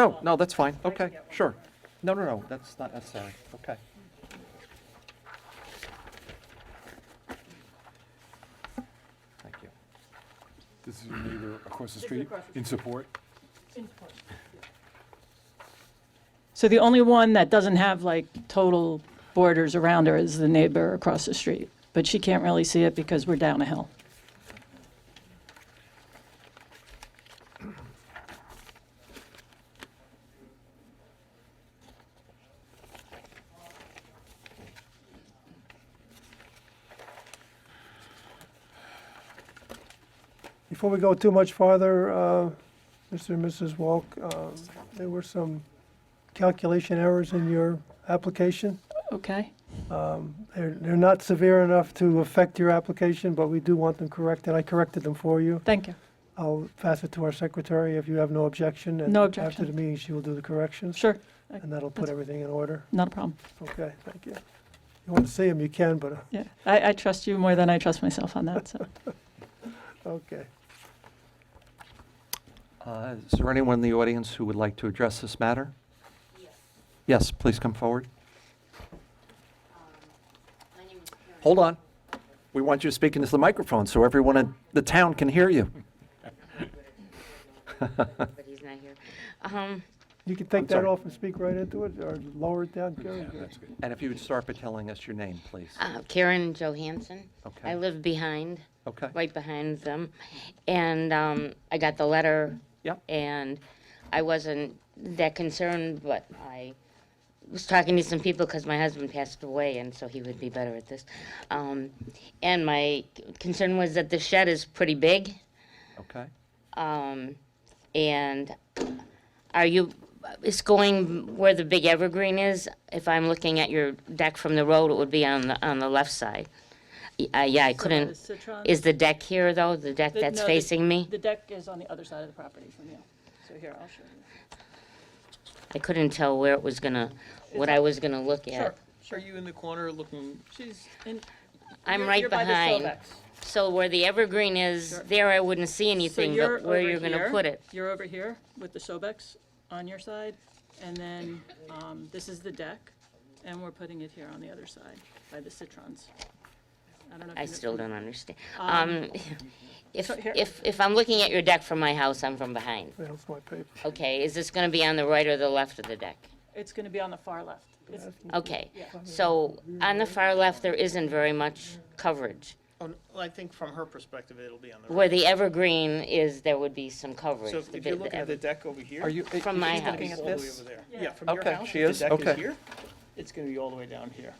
No, Oh, no, that's fine, okay, sure. No, no, no, that's not necessary, okay. Thank you. This is your neighbor across the This is street across the in support. So the only one that doesn't have like total borders around her is the neighbor across the street. But she can't really see it because we're down a hill. Before we go too much farther, uh, Mr. and Mrs. Walk, uh, there were some calculation errors in your application. Okay? They're they're not severe enough to affect your application, but we do want them corrected. I corrected them for you. Thank you. I'll pass it to our secretary if you have no objection. No And after objection. the meeting, she will do the corrections, Sure, and that'll put That's- everything in order. not a problem. Okay, thank you. You want to see them, you can, but, uh, Yeah, I, I trust you more than I trust myself on that, so. okay. Uh, Is there anyone in the audience who would like to address this matter? Yes, please come forward. Um, Hold on. We want you to speak into the microphone so everyone in the town can hear you. But he's not here. Um, You can take sorry. that off and speak right into it, or lower it down, Gary. And if you would start by telling us your name, please. uh, Karen Johansson. Okay. I live behind, Okay? right behind them. And, um, I got the letter. Yep. And I wasn't that concerned, but I was talking to some people because my husband passed away and so he would be better at this. Um, and my concern was that the shed is pretty big. Okay? Um, and are you, it's going where the big evergreen is? If I'm looking at your deck from the road, it would be on the, on the left side. Y- Uh, yeah, I couldn't, is the deck here though, the deck The- that's no, the- facing me? The deck is on the other side of the property from you. So here, I'll show you. I couldn't tell where it was gonna, what I was gonna look Sure. at. Are you in the corner looking, She's in. I'm you're- right you're by the behind. Silvex. So where the evergreen is, Sure. there I wouldn't see anything, so you're but where over you're gonna here, put it. You're over here with the Sobex on your side, and then um, this is the deck, and we're putting it here on the other side by the citrons. I don't know. if I you know- still don't understand. Um, Um, if, so here- if, if I'm looking at your deck from my house, I'm from behind. That's my paper. Okay, is this gonna be on the right or the left of the deck? It's going to be on the far left. It's- Okay, Yeah. so on the far left, there isn't very much coverage. oh, n- well, I think from her perspective, it'll be on the Where right. the evergreen is, there would be some coverage. So if- the if you're bit- the looking at ever- the deck over here. Are you? i- From my she's house. looking it's at all the way this? over there. Yeah. Yeah, from your Okay, house, she if is? the deck Okay. is here, it's gonna be all the way down here.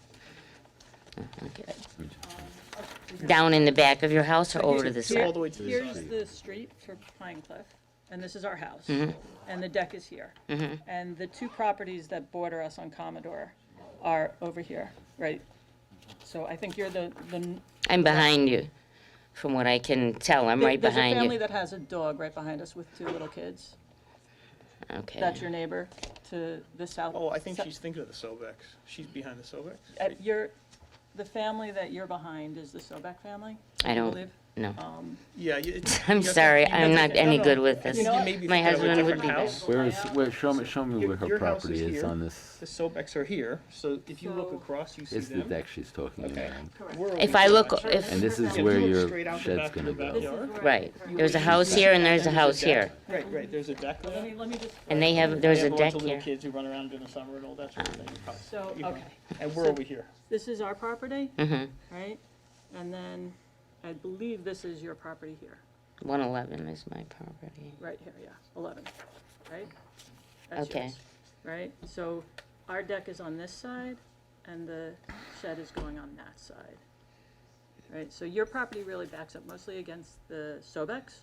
Down in the back of your house or over to the Here's- side? all the way to the Here's the street for Pine Cliff, and this is our house, Mm-hmm. and the deck is here. And the two properties that border us on Commodore are over here, right? So I think you're the, the. I'm behind you, from what I can tell, I'm right There's a behind family you. that has a dog right behind us with two little kids. Okay, That's your neighbor to the south. Oh, I think so- she's thinking of the Sobex. She's behind the Sobex. uh, You're, the family that you're behind is the Sobek family? I don't, believe- no. Oh. Yeah. you- it's- I'm you- you sorry, may I'm be- not no, any no, good with I this. think you may be My thinking of a husband would different be better. house. Where is, where, show me, show me Your- where her your house property is is here. on this, The Sobex are here, so if you look So- across, you see it's the them. deck she's talking Okay. about. We're If over I here. look, If if, And this is you where look your straight out the shed's back of gonna the go. backyard, right, there's a house here and there's a there's house deck. here. Right, right, there's a deck Let there. me, let me just, And they have, They there's a have deck lots of little here. kids who run around in the summer and all that sort of thing. so, You know, okay. And we're So- over here. This is our property, hmm right? And then I believe this is your property here, 111 is my property. right here, yeah, 11, right? That's Okay, yours, Right? So our deck is on this side and the shed is going on that side. Right? So your property really backs up mostly against the Sobex.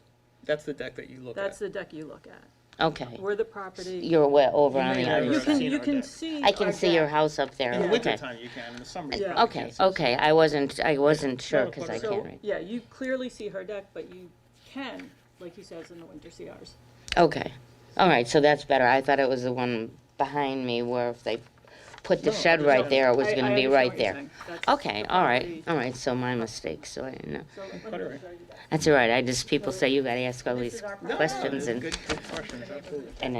That's the deck that you look That's at. the deck you look at. okay. We're the property. You're way over You on may the have other You can, never side. seen you our can deck. see. I can our see your deck. house up there, In the okay. wintertime you can, in the summer you Yeah. probably Okay, can't see. okay, I wasn't, I wasn't sure, No, because I so- can't So, read. yeah, you clearly see her deck, but you can, like he says, in the winter, see ours. Okay, all right, so that's better. I thought it was the one behind me where if they put the No, shed there's right no- there, it was I- gonna I be understand right what you're there. saying. That's Okay, the all right, Um, property. all right, so my mistake, so I didn't know. So let me Cut her in. show you that. That's all right, I just, people say you gotta ask all these our property. No, no, questions they're and Good, good questions, absolutely.